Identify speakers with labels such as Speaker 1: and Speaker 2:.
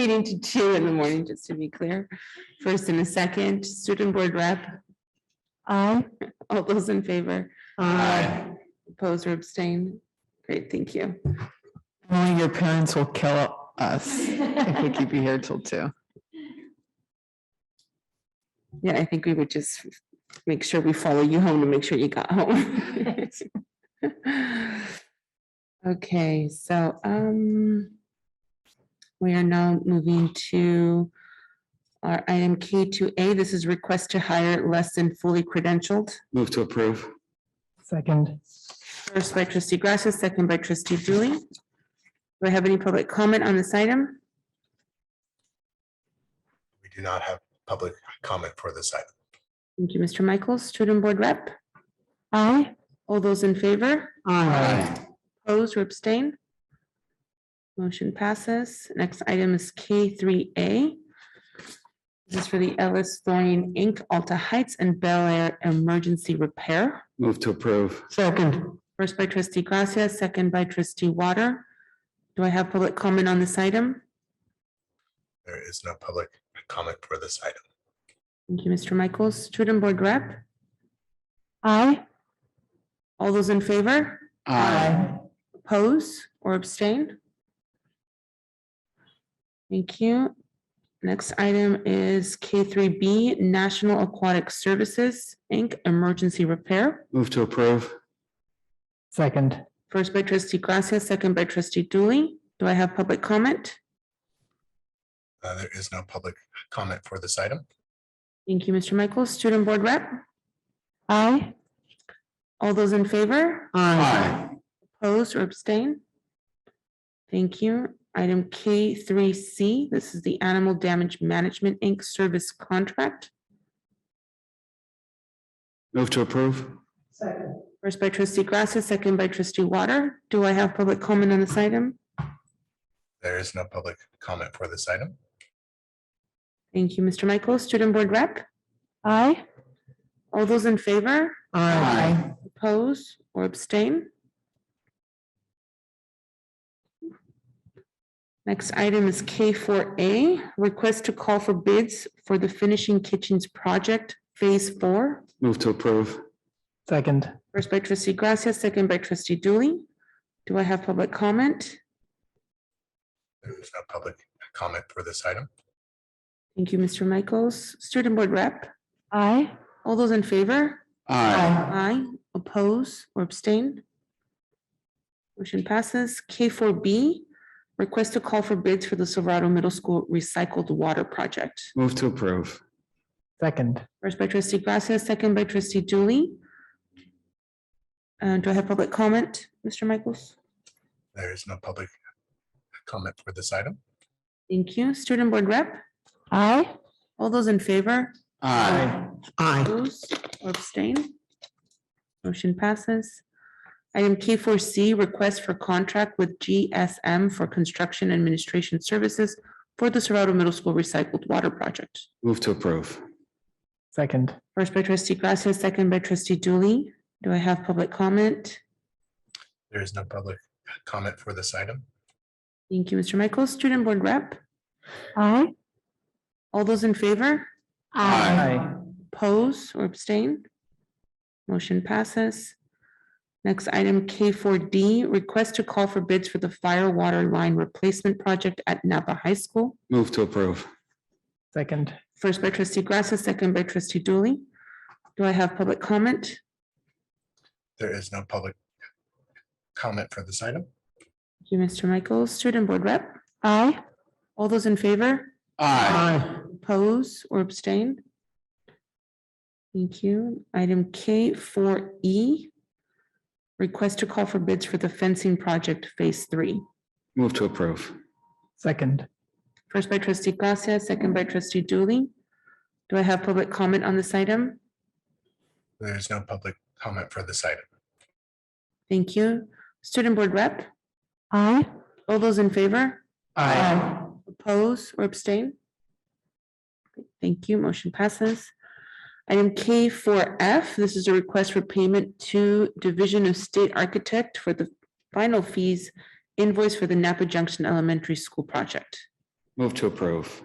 Speaker 1: meeting to two in the morning, just to be clear. First and a second, student board rep,
Speaker 2: Aye.
Speaker 1: all those in favor?
Speaker 2: Aye.
Speaker 1: Oppose or abstain? Great, thank you.
Speaker 2: Only your parents will kill us if we keep you here till two.
Speaker 1: Yeah, I think we would just make sure we follow you home to make sure you got home. Okay, so, um, we are now moving to our item K two A. This is request to hire less than fully credentialed.
Speaker 3: Move to approve.
Speaker 2: Second.
Speaker 1: First by trustee Gracia, second by trustee Dooley. Do I have any public comment on this item?
Speaker 4: We do not have public comment for this item.
Speaker 1: Thank you, Mr. Michaels, student board rep.
Speaker 2: Aye.
Speaker 1: All those in favor?
Speaker 2: Aye.
Speaker 1: Opposed or abstain? Motion passes. Next item is K three A. This is for the Ellis Thorian Inc., Alta Heights and Bel Air Emergency Repair.
Speaker 3: Move to approve.
Speaker 2: Second.
Speaker 1: First by trustee Gracia, second by trustee Water. Do I have public comment on this item?
Speaker 4: There is no public comment for this item.
Speaker 1: Thank you, Mr. Michaels. Student Board Rep,
Speaker 2: Aye.
Speaker 1: all those in favor? Oppose or abstain? Thank you. Next item is K3B National Aquatic Services, Inc., Emergency Repair.
Speaker 3: Move to approve.
Speaker 2: Second.
Speaker 1: First by trustee Gracia, second by trustee Dooley. Do I have public comment?
Speaker 4: Uh, There is no public comment for this item.
Speaker 1: Thank you, Mr. Michael. Student Board Rep,
Speaker 2: Aye.
Speaker 1: all those in favor?
Speaker 3: Aye.
Speaker 1: Opposed or abstain? Thank you. Item K three C, this is the Animal Damage Management, Inc. Service Contract.
Speaker 3: Move to approve.
Speaker 1: First by trustee Gracia, second by trustee Water. Do I have public comment on this item?
Speaker 4: There is no public comment for this item.
Speaker 1: Thank you, Mr. Michael. Student Board Rep,
Speaker 2: Aye.
Speaker 1: all those in favor,
Speaker 2: Aye.
Speaker 1: oppose, or abstain? Next item is K four A, request to call for bids for the Finishing Kitchens Project Phase Four.
Speaker 3: Move to approve.
Speaker 2: Second.
Speaker 1: First by trustee Gracia, second by trustee Dooley. Do I have public comment?
Speaker 4: There is no public comment for this item.
Speaker 1: Thank you, Mr. Michaels. Student Board Rep,
Speaker 2: Aye.
Speaker 1: all those in favor?
Speaker 3: Aye.
Speaker 1: Aye, oppose or abstain? Motion passes. K four B, request to call for bids for the Silverado Middle School Recycled Water Project.
Speaker 3: Move to approve.
Speaker 2: Second.
Speaker 1: First by trustee Gracia, second by trustee Dooley. Uh, do I have public comment, Mr. Michaels?
Speaker 4: There is no public comment for this item.
Speaker 1: Thank you. Student Board Rep,
Speaker 2: Aye.
Speaker 1: all those in favor?
Speaker 2: Aye.
Speaker 1: Oppose or abstain? Motion passes. Item K four C, request for contract with GSM for construction administration services for the Serrato Middle School Recycled Water Project.
Speaker 3: Move to approve.
Speaker 2: Second.
Speaker 1: First by trustee Gracia, second by trustee Dooley. Do I have public comment?
Speaker 4: There is no public comment for this item.
Speaker 1: Thank you, Mr. Michaels. Student Board Rep,
Speaker 2: Aye.
Speaker 1: all those in favor?
Speaker 2: Aye.
Speaker 1: Oppose or abstain? Motion passes. Next item, K four D, request to call for bids for the fire water line replacement project at Napa High School.
Speaker 3: Move to approve.
Speaker 2: Second.
Speaker 1: First by trustee Gracia, second by trustee Dooley. Do I have public comment?
Speaker 4: There is no public comment for this item.
Speaker 1: Thank you, Mr. Michaels, student board rep.
Speaker 2: Aye.
Speaker 1: All those in favor,
Speaker 2: Aye.
Speaker 1: oppose or abstain? Thank you. Item K four E, request to call for bids for the fencing project phase three.
Speaker 3: Move to approve.
Speaker 2: Second.
Speaker 1: First by trustee Gracia, second by trustee Dooley. Do I have public comment on this item?
Speaker 4: There is no public comment for this item.
Speaker 1: Thank you. Student Board Rep,
Speaker 2: Aye.
Speaker 1: all those in favor? Oppose or abstain? Thank you. Motion passes. Item K four F, this is a request for payment to Division of State Architect for the final fees invoice for the Napa Junction Elementary School project.
Speaker 3: Move to approve.